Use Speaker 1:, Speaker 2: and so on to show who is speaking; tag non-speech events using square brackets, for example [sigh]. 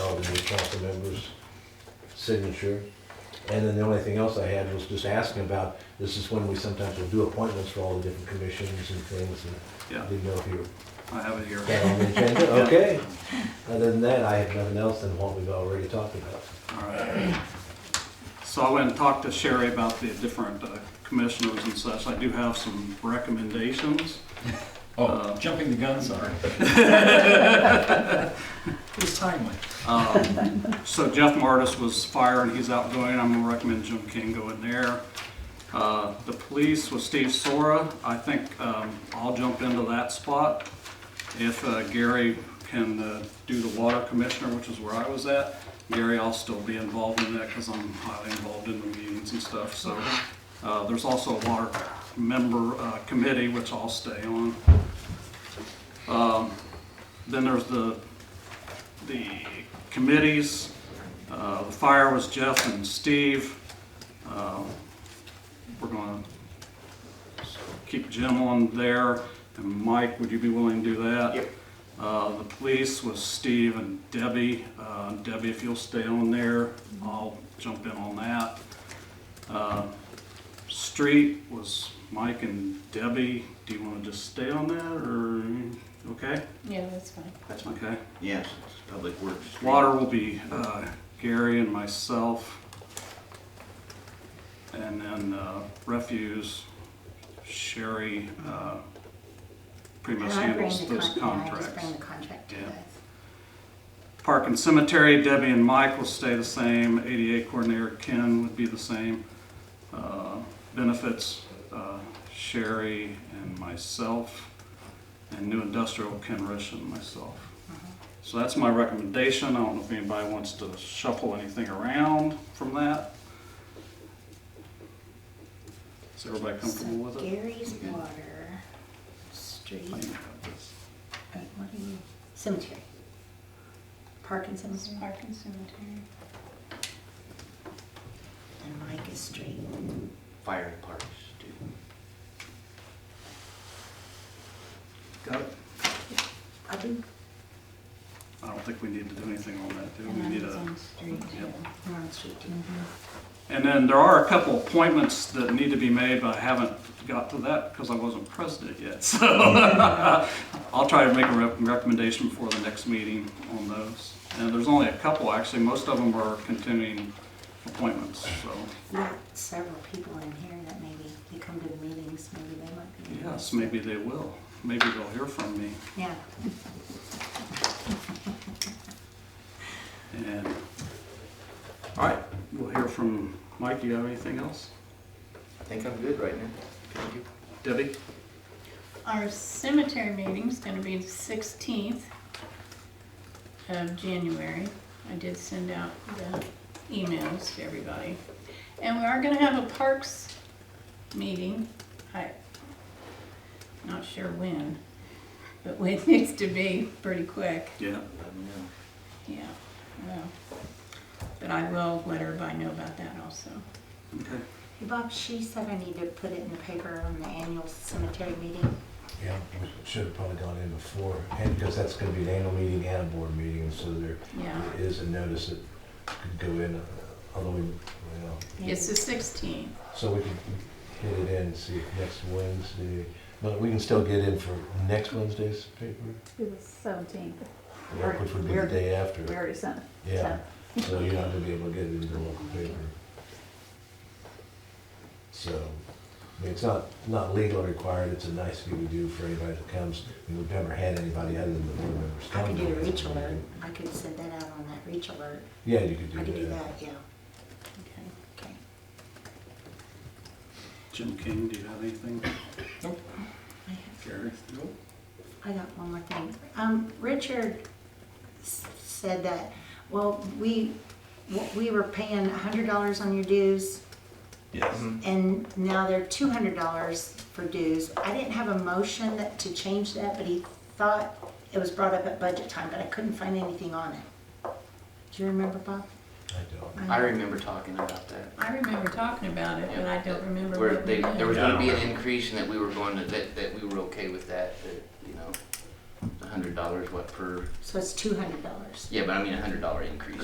Speaker 1: council member's signature. And then the only thing else I had was just asking about, this is when we sometimes will do appointments for all the different commissions and things, and
Speaker 2: Yeah.
Speaker 1: didn't know if you
Speaker 2: I have it here.
Speaker 1: were that on the [laughs] agenda, okay. Other than that, I have nothing else than what we've already talked about.
Speaker 2: All right. So I went and talked to Sherry about the different uh, commissioners and such. I do have some recommendations.
Speaker 3: Oh,
Speaker 2: Uh,
Speaker 3: jumping the gun, [laughs] sorry. It was timely.
Speaker 2: Um, So Jeff Martis was fire and he's outgoing. I'm gonna recommend Jim King go in there. Uh, The police was Steve Sora. I think um, I'll jump into that spot. If uh, Gary can uh, do the water commissioner, which is where I was at, Gary, I'll still be involved in that because I'm highly involved in the meetings and stuff, so. uh, There's also a water member uh, committee, which I'll stay on. Um, Then there's the the committees. Uh, The fire was Jeff and Steve. Uh, We're going to keep Jim on there. And Mike, would you be willing to do that? Yep. The police was Steve and Debbie. Uh, Debbie, if you'll stay on there, I'll jump in on that. Uh, Street was Mike and Debbie. Do you want to just stay on that, or, okay?
Speaker 4: Yeah, that's fine.
Speaker 2: That's okay.
Speaker 5: Yes, it's Public Works.
Speaker 2: Water will be uh, Gary and myself. And then uh, refuse, Sherry uh, pretty much
Speaker 6: And I bring
Speaker 2: handles
Speaker 6: the
Speaker 2: those
Speaker 6: con, yeah, I just
Speaker 2: contracts.
Speaker 6: bring the contract to you
Speaker 2: Yeah.
Speaker 6: guys.
Speaker 2: Park and Cemetery, Debbie and Mike will stay the same. ADA Coordinator Ken would be the same. Uh, Benefits, uh, Sherry and myself. And New Industrial, Ken Rish and myself. So that's my recommendation. I don't know if anybody wants to shuffle anything around from that. Is everybody comfortable
Speaker 6: So
Speaker 2: with it?
Speaker 6: Gary's Water, Street,
Speaker 2: I think I got this.
Speaker 6: right, what are you, Cemetery. Park and Cemetery,
Speaker 4: Park and Cemetery.
Speaker 6: and Mike is Street.
Speaker 5: Fire and Parks, too.
Speaker 2: Got it?
Speaker 6: I do.
Speaker 2: I don't think we need to do anything on that, do we?
Speaker 4: And
Speaker 2: We
Speaker 4: then
Speaker 2: need
Speaker 4: it's
Speaker 2: a
Speaker 4: on street
Speaker 2: Yep.
Speaker 4: too.
Speaker 6: We're on Street too.
Speaker 2: And then there are a couple appointments that need to be made, but I haven't got to that because I wasn't president yet. [laughs] So I'll try to make a rec- recommendation before the next meeting on those. And there's only a couple, actually. Most of them are continuing appointments, so.
Speaker 6: Not several people in here that maybe, you come to the meetings, maybe they might be.
Speaker 2: Yes, maybe they will. Maybe they'll hear from me.
Speaker 6: Yeah,
Speaker 2: And, all right, we'll hear from Mike. Do you have anything else?
Speaker 5: I think I'm good right now. Thank you.
Speaker 2: Debbie?
Speaker 4: Our cemetery meeting's gonna be the sixteenth of January. I did send out the emails to everybody. And we are gonna have a parks meeting. I, not sure when, but [laughs] it needs to be pretty quick.
Speaker 2: Yeah.
Speaker 5: Let me know.
Speaker 4: Yeah, well, but I will let everybody know about that also.
Speaker 2: Okay.
Speaker 6: Hey, Bob, she said I need to put it in the paper on the annual cemetery meeting.
Speaker 1: Yeah, we should have probably gone in before, and because that's gonna be an annual meeting and a board meeting, and so there
Speaker 4: Yeah,
Speaker 1: is a notice that could go in, uh, although we, you know,
Speaker 4: it's the sixteenth.
Speaker 1: so we could hit it in, and see if next Wednesday, but we can still get in for next Wednesday's paper,
Speaker 7: It was seventeenth.
Speaker 1: yeah, which would be the day
Speaker 7: We
Speaker 1: after.
Speaker 7: already sent it.
Speaker 1: Yeah, so you're not gonna be able to get it in the local paper. So, I mean, it's not, not legal required, it's a nice thing to do for anybody that comes, and we've never had anybody other than the board members
Speaker 6: I
Speaker 1: come.
Speaker 6: could do a
Speaker 1: to it.
Speaker 6: reach alert, I could send that out on that reach alert,
Speaker 1: Yeah, you could do
Speaker 6: I
Speaker 1: that.
Speaker 6: could do that, yeah,
Speaker 4: Okay.
Speaker 6: okay.
Speaker 2: Jim King, do you have anything?
Speaker 6: I have-
Speaker 2: Gary? Nope.
Speaker 6: I got one more thing. Um, Richard s- said that, well, we, w- we were paying hundred dollars on your dues,
Speaker 3: Yes.
Speaker 6: and now they're two hundred dollars for dues. I didn't have a motion that, to change that, but he thought it was brought up at budget time, but I couldn't find anything on it. Do you remember, Bob?
Speaker 1: I don't.
Speaker 5: I remember talking about that.
Speaker 4: I remember talking about it, but I don't remember
Speaker 5: Where
Speaker 4: what
Speaker 5: they,
Speaker 4: we
Speaker 5: there was
Speaker 4: did.
Speaker 5: gonna be an increase and that we were going to, that, that we were okay with that, that, you know, a hundred dollars, what per,
Speaker 6: So it's two hundred dollars.
Speaker 5: yeah, but I mean a hundred dollar increase.